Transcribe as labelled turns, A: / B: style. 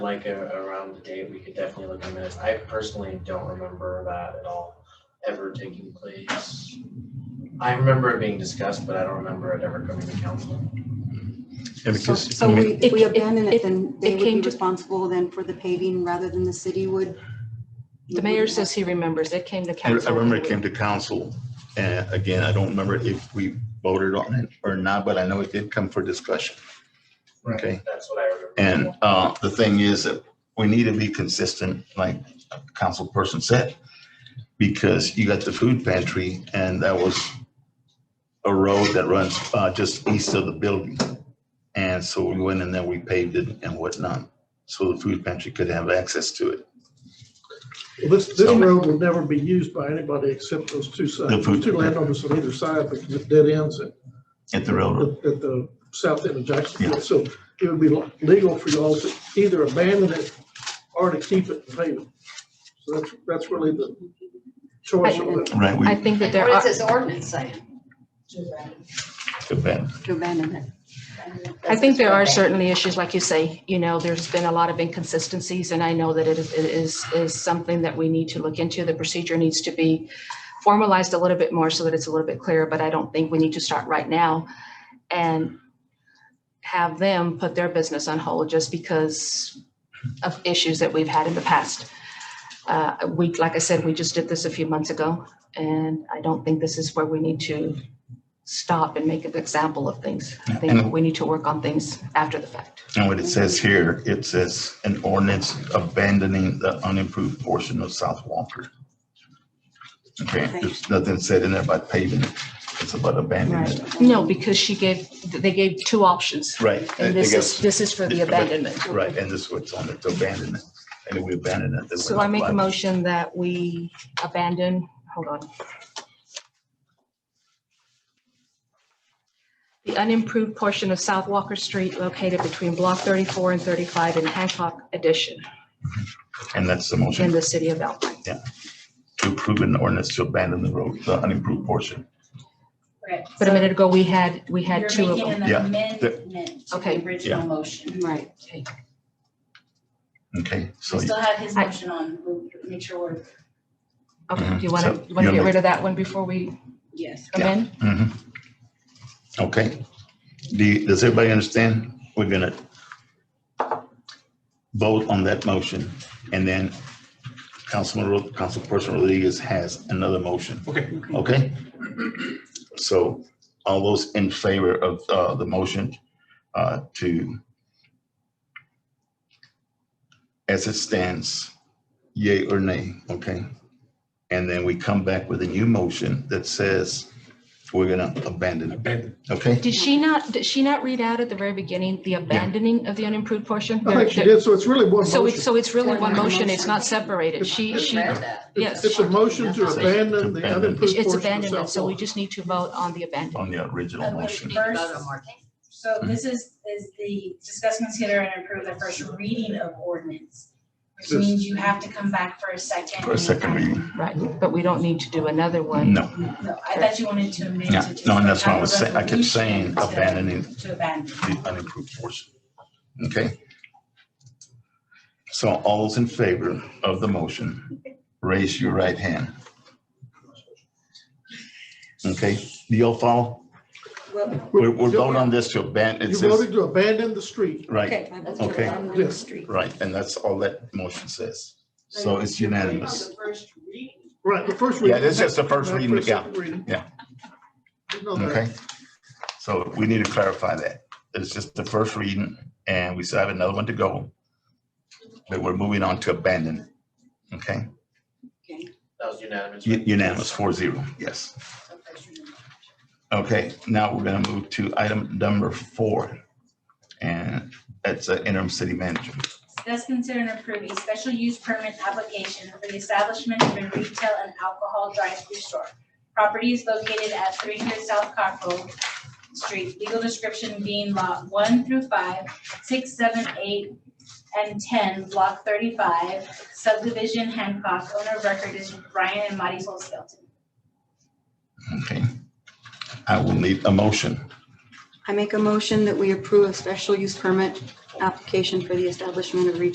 A: like a, around the date, we could definitely look at minutes. I personally don't remember that at all ever taking place. I remember it being discussed, but I don't remember it ever coming to council.
B: Yeah,
C: So
B: because,
C: so
B: I mean,
C: we, if we
D: It-
C: abandon
D: it-
C: it, then they
D: it
C: would be
D: came to-
C: responsible then for the paving rather than the city would?
D: The mayor says he remembers. It came to
B: I
D: council.
B: I remember it came to council, and again, I don't remember if we voted on it or not, but I know it did come for discussion. Okay,
A: That's what I remember.
B: and uh, the thing is that we need to be consistent, like council person said, because you got the food pantry, and that was a road that runs uh, just east of the building. And so we went in there, we paved it and whatnot, so the food pantry could have access to it.
E: Well, This, this
B: So-
E: road will never be used by anybody except those two
B: The
E: sides,
B: food-
E: two landowners on either side, because it dead ends at,
B: At the railroad.
E: at the south end of
B: Yeah.
E: Jacksonville. So it would be legal for y'all to either abandon it or to keep it and pave it. So that's, that's really the choice of it.
B: Right,
D: I
B: we
D: think that there
F: What
D: are,
F: is this ordinance saying?
B: took that.
C: To abandon it.
D: I think there are certainly issues, like you say, you know, there's been a lot of inconsistencies and I know that it is, it is, is something that we need to look into. The procedure needs to be formalized a little bit more so that it's a little bit clearer, but I don't think we need to start right now and have them put their business on hold just because of issues that we've had in the past. Uh, we, like I said, we just did this a few months ago and I don't think this is where we need to stop and make an example of things. I think
B: And-
D: we need to work on things after the fact.
B: And what it says here, it says an ordinance abandoning the unimproved portion of South Walker. Okay, there's nothing said in there about paving. it. It's about abandoning it.
D: No, because she gave, they gave two options.
B: Right.
D: And
B: I
D: this is,
B: guess-
D: this is for the abandonment.
B: Right, and this is what's on it, to abandon it. And we abandon it. then we
D: So I make a
B: apply.
D: motion that we abandon, hold on. The unimproved portion of South Walker Street located between Block 34 and 35 in Hancock Addition
B: And that's the
D: in
B: motion,
D: the city of Alpine.
B: to approve an ordinance to abandon the road, the unimproved portion.
F: Right,
D: But a
F: so
D: minute ago, we had, we had
F: You're
D: two of
F: making
D: them.
F: an
B: Yeah,
F: amendment to
D: Okay.
F: the original motion.
C: Right.
B: Okay, so
F: We
B: you-
F: still have his
D: I-
F: motion on, we'll make sure we're,
D: Okay, do you want
B: So
D: to, you want to
B: you're
D: get rid of that one before we
F: yes.
B: Yeah.
D: amend?
B: Mhm. Okay. Do, you- does everybody understand? We're gonna vote on that motion, and then Councilman, Ro- Councilperson Rodriguez has another motion,
G: Okay,
B: okay? So all those in favor of, uh, the motion, uh, to as it stands, yay or nay, okay? And then we come back with a new motion that says we're gonna abandon it,
G: abandoned.
B: okay?
D: Did she not, did she not read out at the very beginning the abandoning of the unimproved portion?
E: I think Oh, she
D: There-
E: did, so it's really one
D: So it's,
E: motion.
D: so it's really
C: One
D: one motion,
C: motion.
D: it's not separated. She,
F: Just
D: she,
F: read that.
D: yes.
E: It's a motion to abandon the
B: Abandon.
E: unimproved
D: it's
E: portion
D: abandonment,
E: of
D: so we
E: South
D: just need to vote on the abandonment.
B: On the original
F: But we
B: motion.
F: need to vote on more things. So
B: Mhm.
F: this is, is the discuss, consider and approve the first reading of ordinance, which
E: This-
F: means you have to come back for a second.
B: For a second reading,
D: Right, but we don't need to do another one.
B: no,
F: No, I thought you wanted to amend.
B: yeah,
F: to just
B: no, and that's what I was
F: have a
B: saying, I kept saying
F: resolution to-
B: abandoning
F: To abandon.
B: the unimproved portion, okay? So all those in favor of the motion, raise your right hand. Okay, do y'all follow?
E: Walker.
B: We're, we're voting on this to abandon, it
E: You
B: says,
E: voted to abandon the street.
B: right, Okay.
E: Yes.
B: right, and that's all that motion says. So it's unanimous.
E: Right, the first
B: Yeah,
E: reading.
B: this is the first
E: Not
B: reading,
E: first,
B: yeah.
E: second reading.
B: Yeah.
E: You know that.
B: Okay, so we need to clarify that. It's just the first reading and we still have another one to go. But we're moving on to abandon. Okay,
A: That was unanimous.
B: U- unanimous, four zero, yes.
F: So first reading.
B: Okay, now we're gonna move to item number four. And that's uh, interim city manager.
F: Discuss, consider, and approve a special use permit application for the establishment of a retail and alcohol drive-through store. Property is located at three hundred South Cockrell Street, legal description being lot one through five, six, seven, eight, and ten, block thirty-five, subdivision Hancock, owner of record is Ryan and Marty Sol Skelton.
B: Okay. I will need a motion.
C: I make a motion that we approve a special use permit application for the establishment of retail